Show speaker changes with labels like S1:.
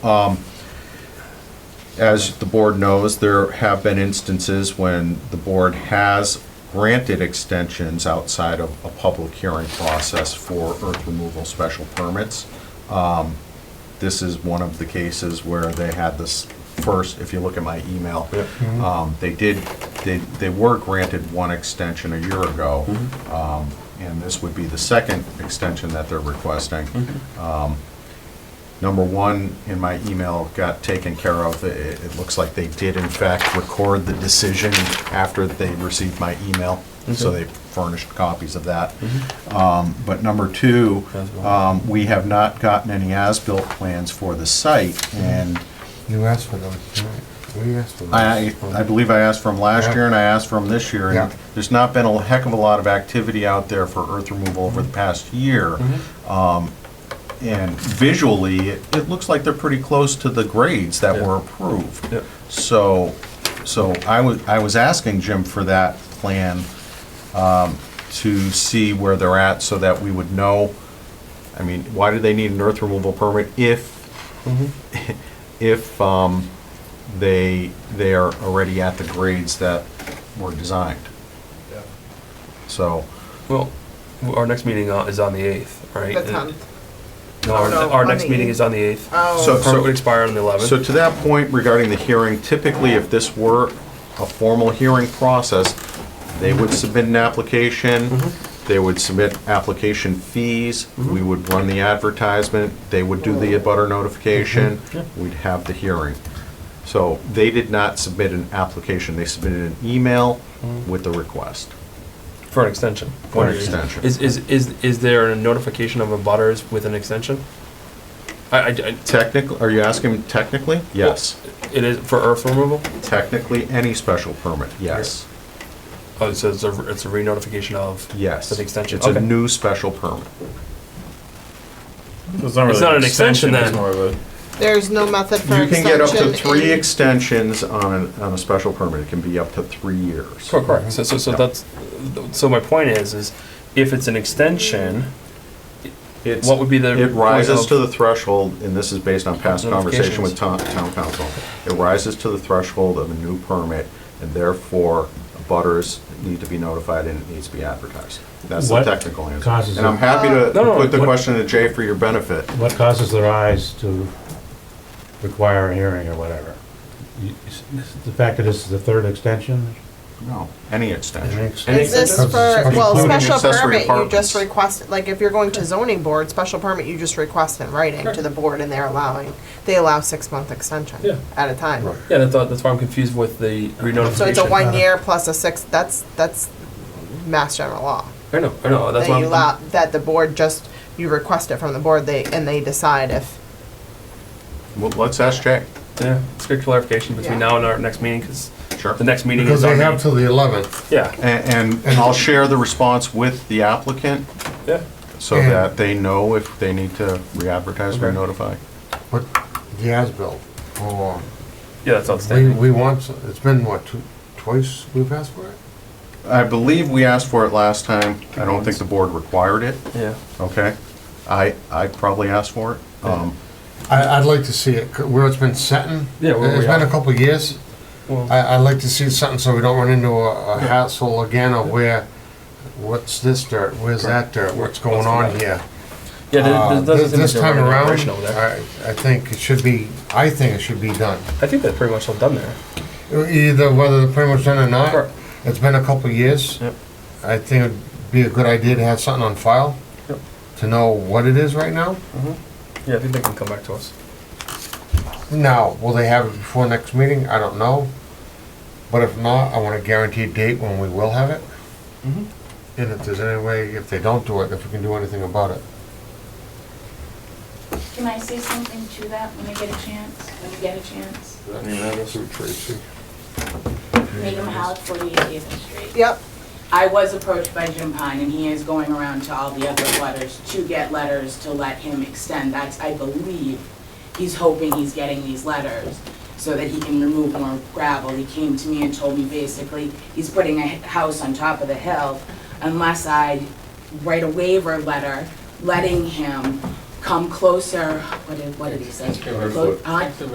S1: As the board knows, there have been instances when the board has granted extensions outside of a public hearing process for earth removal special permits. Um, This is one of the cases where they had this first, if you look at my email, um, they did, they, they were granted one extension a year ago. Um, And this would be the second extension that they're requesting. Number one in my email got taken care of. It, it looks like they did in fact record the decision after they received my email. So they furnished copies of that. Um, But number two, um, we have not gotten any as-built plans for the site. And
S2: You asked for those tonight. We asked for those.
S1: I, I I believe I asked from last
S2: Yeah.
S1: year and I asked from this year.
S2: Yeah.
S1: and There's not been a heck of a lot of activity out there for earth removal over
S2: Mm-hmm.
S1: the past year. Um, And visually, it it looks like they're pretty close to the grades that were approved.
S3: Yep.
S1: So, so I was, I was asking Jim for that plan um, to see where they're at so that we would know, I mean, why do they need an earth removal permit if, if um, they, they are already at the grades that were designed? So,
S3: Well, w- our next meeting uh, is on the 8th, right?
S4: The
S3: And-
S1: uh,
S4: 10th.
S3: No, our,
S4: No,
S3: our
S4: on
S3: next
S4: the
S3: meeting
S4: 8th.
S3: is on the 8th.
S1: So-
S4: Oh,
S3: The Permit would expire on the 11th.
S1: so to that point regarding the hearing, typically if this were a formal hearing process, they would submit an application,
S3: Mm-hmm.
S1: they would submit application fees, we would run the advertisement, they would do the abutter notification,
S3: Mm-hmm.
S1: we'd have the hearing. So they did not submit an application, they submitted an email
S3: Mm-hmm.
S1: with the request.
S3: For an extension.
S1: For an extension.
S3: Is, is, is, is there a notification of abutters with an extension? I, I, I-
S1: Technically, are you asking technically? Yes.
S3: it is for earth removal?
S1: Technically, any special permit, yes.
S3: Oh, so it's a, it's a re-notification of?
S1: Yes.
S3: Of the extension,
S1: It's a
S3: okay.
S1: new special permit.
S5: It's not,
S3: It's
S5: really
S3: not an extension
S5: it's
S3: then.
S5: more of
S4: there's no method for
S1: You can
S4: extension.
S1: get up to three
S4: in-
S1: extensions on, an- on a special permit. It can be up to three years.
S3: Cor- Correct, so, so, so
S1: Mhm. Yeah.
S3: that's, so my point is, is if it's an extension,
S1: It's-
S3: What would be the
S1: It rises
S3: point
S1: to
S3: of-
S1: the threshold, and this is based on past conversation with town, town council. It rises to the threshold of a new permit, and therefore, butters need to be notified and it needs to be advertised. That's the
S5: What
S1: technical answer.
S5: causes
S1: And I'm
S5: it?
S1: happy to
S3: Uh, No, no,
S1: put the
S3: what-
S1: question to Jay for your benefit.
S5: a, what causes their eyes to require a hearing or whatever? You- it's- it's The fact that this is the third extension?
S1: No, any extension.
S3: Any
S4: Is this for,
S3: extension?
S4: well,
S5: Including
S4: special
S1: accessory
S4: permit, you
S1: apartments.
S4: just request, like, if you're going to zoning board, special permit, you just request in writing to the board and they're allowing, they allow six-month
S3: Yeah.
S4: extension at a time.
S3: Yeah, that's, that's why I'm confused with the re-notification.
S4: So it's a one-year plus a six, that's, that's mass general law.
S3: I know, I know, that's
S4: That
S3: why
S4: you
S3: I'm-
S4: allow, that the board just, you request it from the board, they, and they decide if,
S1: Well, let's ask Jay.
S3: Yeah, it's good clarification between
S4: Yeah.
S3: now and our next meeting, because
S1: Sure.
S3: the next meeting
S2: Because
S3: is
S2: they
S3: on
S2: have
S3: the,
S2: till the eleventh.
S3: yeah,
S1: And, and I'll share the response with the applicant
S3: yeah.
S1: so
S2: And-
S1: that they know if they need to re-advertise or
S3: Okay.
S1: notify.
S2: But the as-built, oh,
S3: Yeah, that's
S1: uh,
S2: we,
S3: outstanding.
S2: we want, some- it's been what, two, twice we've asked for it?
S1: I believe we asked for it last time. I don't think the board required it,
S3: Yeah.
S1: okay? I, I probably asked for it. Um,
S2: I, I'd like to see it, c- where it's been setting.
S3: Yeah, where we
S2: It's been
S3: are.
S2: a couple of years.
S3: Well,
S2: I, I'd like to see something so we don't run into a a hassle again of where, what's this dirt, where's that dirt, what's going on here?
S3: yeah, there-
S2: Uh,
S3: there doesn't
S2: This
S3: seem
S2: this
S3: to be a
S2: time around,
S3: operation over there.
S2: I, I think it should be, I think it should be done.
S3: I think that's pretty much all done there.
S2: Either whether they're pretty much done or
S3: Correct.
S2: not, it's been a couple of years.
S3: Yep.
S2: I think it'd be a good idea to have something on file,
S3: Yep.
S2: to know what it is right now.
S3: Mm-hmm. Yeah, I think they can come back to us.
S2: Now, will they have it before next meeting? I don't know. But if not, I want a guaranteed date when we will have it.
S4: Mm-hmm.
S3: Mhm.
S2: And if there's any way, if they don't do it, if we can do anything about it.
S6: Can I say something to that when I get a chance, when you get a chance? Megan Mahalik, 48 Haven Street.
S4: yep,
S6: I was approached by Jim Pine, and he is going around to all the other letters to get letters to let him extend. That's, I believe, he's hoping he's getting these letters so that he can remove more gravel. He came to me and told me basically, he's putting a house on top of the hill unless I write a waiver letter letting him come closer, what did, what did he say? Clo- huh?